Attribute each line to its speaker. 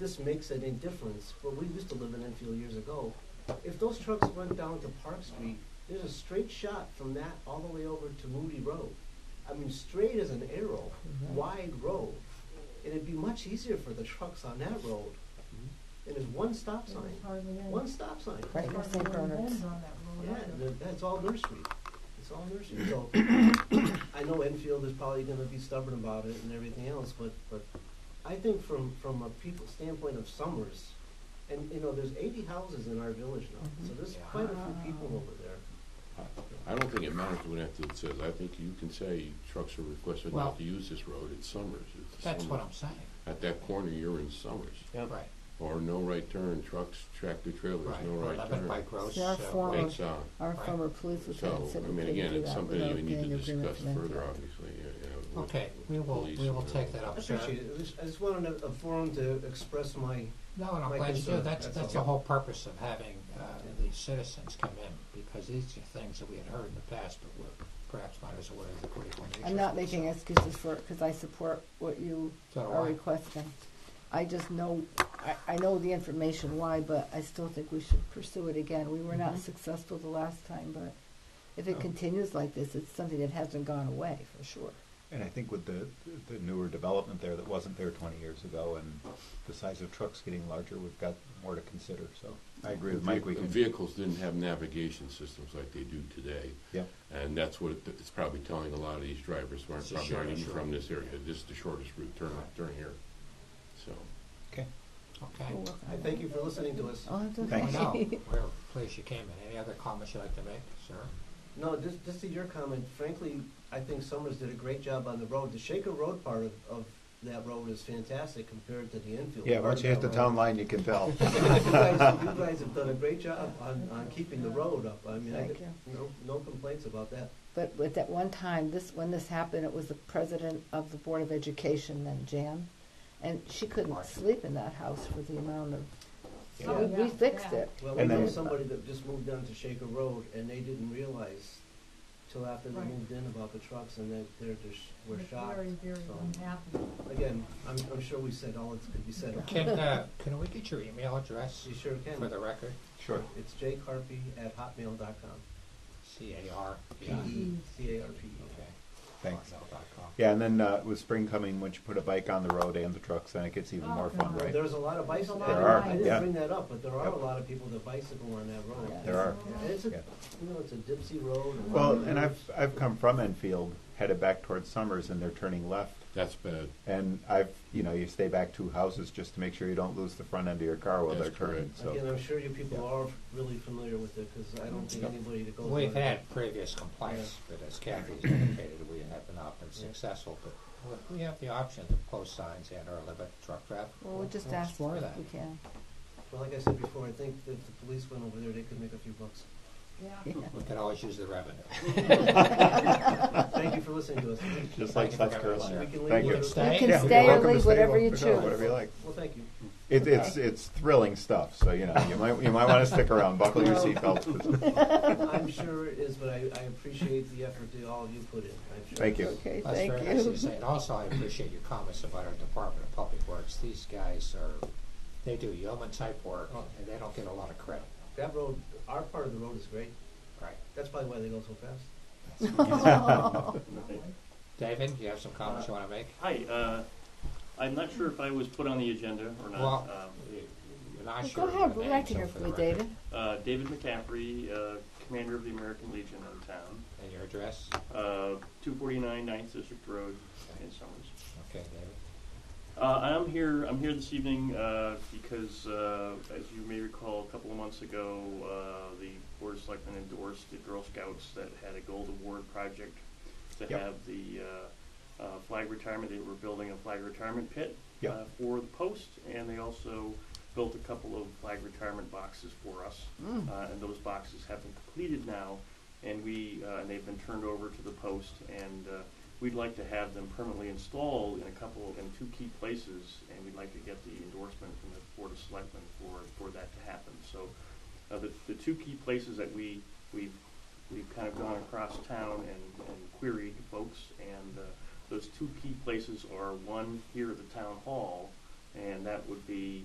Speaker 1: this makes any difference, but we used to live in Enfield years ago. If those trucks went down to Park Street, there's a straight shot from that all the way over to Moody Road. I mean, straight as an arrow, wide road. And it'd be much easier for the trucks on that road. And there's one stop
Speaker 2: There was
Speaker 1: sign,
Speaker 2: hardly any.
Speaker 1: one stop sign.
Speaker 3: Right.
Speaker 2: hardly
Speaker 3: St.
Speaker 2: any
Speaker 3: Bernard's.
Speaker 2: homes on that road
Speaker 1: Yeah,
Speaker 2: either.
Speaker 1: th- that's all nursery. It's all nursery. So I know Enfield is probably gonna be stubborn about it and everything else, but, but I think from, from a people standpoint of Summers, and, you know, there's eighty houses in our village now,
Speaker 4: Mm-hmm.
Speaker 1: so there's quite a few people over there.
Speaker 5: I don't think it matters what Enfield says. I think you can say trucks are requested
Speaker 6: Well-
Speaker 5: not to use this road in Summers. It's
Speaker 6: That's what
Speaker 5: Summers.
Speaker 6: I'm saying,
Speaker 5: At that corner, you're in Summers.
Speaker 6: right,
Speaker 5: Or no right turn, trucks, tractor trailers,
Speaker 6: right,
Speaker 5: no
Speaker 6: or
Speaker 5: right
Speaker 6: eleven
Speaker 5: turn.
Speaker 6: bike roads.
Speaker 3: See, our
Speaker 6: uh,
Speaker 3: form
Speaker 6: wait,
Speaker 3: of-
Speaker 5: It's, uh,
Speaker 3: Our
Speaker 6: Right.
Speaker 3: former police
Speaker 5: so,
Speaker 3: lieutenant said
Speaker 5: I
Speaker 3: we
Speaker 5: mean,
Speaker 3: couldn't
Speaker 5: again,
Speaker 3: do
Speaker 5: it's
Speaker 3: that
Speaker 5: something
Speaker 3: without
Speaker 5: that we need
Speaker 3: getting
Speaker 5: to
Speaker 3: agreement
Speaker 5: discuss
Speaker 3: from them.
Speaker 5: further, obviously, yeah, yeah, with-
Speaker 6: Okay,
Speaker 5: with
Speaker 6: we will,
Speaker 5: police
Speaker 6: we will
Speaker 5: and
Speaker 6: take
Speaker 5: all.
Speaker 6: that
Speaker 1: I
Speaker 6: up, sir.
Speaker 1: appreciate it. I just- I just wanted a, a forum to express my,
Speaker 6: No, and I'm
Speaker 1: My
Speaker 6: glad you
Speaker 1: concern,
Speaker 6: do, that's,
Speaker 1: that's
Speaker 6: that's the
Speaker 1: all.
Speaker 6: whole purpose of having, uh, these citizens come in, because these are things that we had heard in the past, but were perhaps not as aware of the critical nature.
Speaker 3: I'm
Speaker 6: of
Speaker 3: not
Speaker 6: it,
Speaker 3: making
Speaker 6: so-
Speaker 3: excuses for it, cause I support what you
Speaker 6: So do
Speaker 3: are
Speaker 6: I.
Speaker 3: requesting. I just know, I, I know the information why, but I still think we should pursue it again. We were not
Speaker 5: Mm-hmm.
Speaker 6: Mhm.
Speaker 3: successful the last time, but if
Speaker 6: No.
Speaker 3: it continues like this, it's something that hasn't gone away, for sure.
Speaker 4: And I think with the, the newer development there that wasn't there twenty years ago and the size of trucks getting larger, we've got more to consider, so. I agree with Mike, we
Speaker 5: The
Speaker 4: can,
Speaker 5: Vehicles didn't have navigation systems like they do today.
Speaker 4: yeah,
Speaker 5: And that's what it- it's probably telling a lot of these drivers who aren't
Speaker 6: It's the
Speaker 5: probably aren't
Speaker 6: shortest
Speaker 5: even from
Speaker 6: route.
Speaker 5: this area. This is the shortest route, turn,
Speaker 6: Right.
Speaker 5: turn here. So,
Speaker 4: okay.
Speaker 6: Okay.
Speaker 3: We'll work
Speaker 1: I
Speaker 3: on it.
Speaker 1: thank you for listening to us.
Speaker 3: Oh, it's
Speaker 6: Well,
Speaker 4: Thanks.
Speaker 6: now,
Speaker 3: okay.
Speaker 6: we're pleased you came in, any other comments you'd like to make, sir?
Speaker 1: No, just, just to your comment, frankly, I think Summers did a great job on the road. The Shaker Road part of, of that road is fantastic compared to the Enfield.
Speaker 4: Yeah, once you hit the town line, you can tell.
Speaker 1: You guys, you guys have done a great job on, on keeping the road up. I mean, I,
Speaker 3: Thank you.
Speaker 1: no, no complaints about that.
Speaker 3: But but at one time, this, when this happened, it was the president of the Board of Education then, Jan, and she couldn't
Speaker 6: Right.
Speaker 3: sleep in that house for the amount of,
Speaker 1: Yeah.
Speaker 3: we- we
Speaker 2: Yeah.
Speaker 3: fixed
Speaker 2: Yeah.
Speaker 3: it.
Speaker 1: Well,
Speaker 4: And
Speaker 1: we know
Speaker 4: then-
Speaker 1: somebody that just moved down to Shaker Road and they didn't realize till after they
Speaker 2: Right.
Speaker 1: moved in about the trucks and that they're just, were
Speaker 2: They're
Speaker 1: shocked.
Speaker 2: Very, very
Speaker 1: So,
Speaker 2: unhappy.
Speaker 1: Again, I'm, I'm sure we said all that could be said.
Speaker 6: Can, uh, can we get your email address
Speaker 1: You sure
Speaker 6: for
Speaker 1: can.
Speaker 6: the record?
Speaker 4: Sure.
Speaker 1: It's jcarpy at hotmail dot com.
Speaker 6: C A R P.
Speaker 1: P E C A R P E.
Speaker 6: Okay.
Speaker 4: Thanks.
Speaker 6: Hotmail.com.
Speaker 4: Yeah, and then, uh, with spring coming, once you put a bike on the road and the trucks, then it gets even
Speaker 2: Oh,
Speaker 4: more fun,
Speaker 2: God.
Speaker 4: right?
Speaker 1: There's a lot of bicycle.
Speaker 2: There
Speaker 4: are,
Speaker 1: I didn't
Speaker 4: yeah.
Speaker 1: bring that up, but there are a
Speaker 4: Yep.
Speaker 1: lot of people that bicycle on that road.
Speaker 4: There are.
Speaker 1: And It's a,
Speaker 4: Yeah.
Speaker 1: you know, it's a dipsy road. and-
Speaker 4: Well, and I've, I've come from Enfield, headed back towards Summers, and they're turning left.
Speaker 5: that's bad.
Speaker 4: And I've, you know, you stay back two houses just to make sure you don't lose the front end of your car while they're
Speaker 5: That's
Speaker 4: turning,
Speaker 5: correct.
Speaker 4: so.
Speaker 1: Again, I'm sure you people
Speaker 4: Yeah.
Speaker 1: are really familiar with it, because I don't think
Speaker 4: Yep.
Speaker 1: anybody that goes.
Speaker 6: We've
Speaker 1: on it-
Speaker 6: had previous complaints, but as Kathy's indicated, we have not been successful, but we- we have the option to post signs and or limit truck traffic.
Speaker 3: Well, we'll just ask
Speaker 6: explore
Speaker 3: if
Speaker 6: that.
Speaker 3: we can.
Speaker 1: Well, like I said before, I think that if the police went over there, they could make a few bucks.
Speaker 2: Yeah.
Speaker 3: Yeah.
Speaker 6: We could always use the revenue.
Speaker 1: Thank you for listening to us.
Speaker 4: Just
Speaker 6: Thank
Speaker 4: like
Speaker 6: you
Speaker 4: South
Speaker 6: for having us.
Speaker 4: Carolina.
Speaker 1: We can leave
Speaker 4: Thank
Speaker 1: you.
Speaker 4: you.
Speaker 1: You
Speaker 3: You
Speaker 6: Stay.
Speaker 3: can
Speaker 4: Yeah,
Speaker 6: Yeah.
Speaker 4: you're
Speaker 3: stay or
Speaker 4: welcome to
Speaker 3: leave
Speaker 4: stay,
Speaker 3: whatever you
Speaker 4: welcome to go,
Speaker 3: choose.
Speaker 4: Whatever you like.
Speaker 1: Well, thank you.
Speaker 4: It, it's it's thrilling stuff. So you know you might you might want to stick around. Buckle your seatbelt.
Speaker 1: I'm sure it is, but I, I appreciate the effort that all of you put in. I'm sure.
Speaker 4: Thank you.
Speaker 3: Okay,
Speaker 6: That's
Speaker 3: thank
Speaker 6: very nice of you
Speaker 3: you.
Speaker 6: to say, and also I appreciate your comments about our Department of Public Works. These guys are, they do yeoman type work, and they don't get a lot of credit,
Speaker 1: That road, our part of the road is great.
Speaker 6: right?
Speaker 1: That's probably why they go so fast.
Speaker 6: David, you have some comments you wanna make?
Speaker 7: Hi, uh, I'm not sure if I was put on the agenda or not.
Speaker 6: Well, you- you're not
Speaker 3: Go
Speaker 6: sure. of
Speaker 3: ahead,
Speaker 6: the
Speaker 3: we'd
Speaker 6: name,
Speaker 3: like to
Speaker 6: so
Speaker 3: hear
Speaker 6: for
Speaker 3: from
Speaker 6: the
Speaker 3: you,
Speaker 6: record-
Speaker 3: David.
Speaker 7: Um, uh, David McCaffrey, uh, commander of the American Legion of town,
Speaker 6: And your address?
Speaker 7: uh, 249 Ninth District Road in Summers.
Speaker 6: Okay, David.
Speaker 7: Uh, I'm here. I'm here this evening uh, because, uh, as you may recall, a couple of months ago, uh, the board of selectmen endorsed the Girl Scouts that had a gold award project to
Speaker 4: Yep.
Speaker 7: have the uh, uh, flag retirement. They were building a flag retirement pit
Speaker 4: Yep.
Speaker 7: uh, for the post, and they also built a couple of flag retirement boxes for us.
Speaker 3: Mm.
Speaker 7: Uh, and those boxes have been completed now, and we uh, and they've been turned over to the post and. Uh, We'd like to have them permanently installed in a couple, in two key places, and we'd like to get the endorsement from the Board of Selectmen for, for that to happen. So, uh, the, the two key places that we, we've, we've kind of gone across town and, and queried folks, and, uh, those two key places are one here at the town hall, and that would be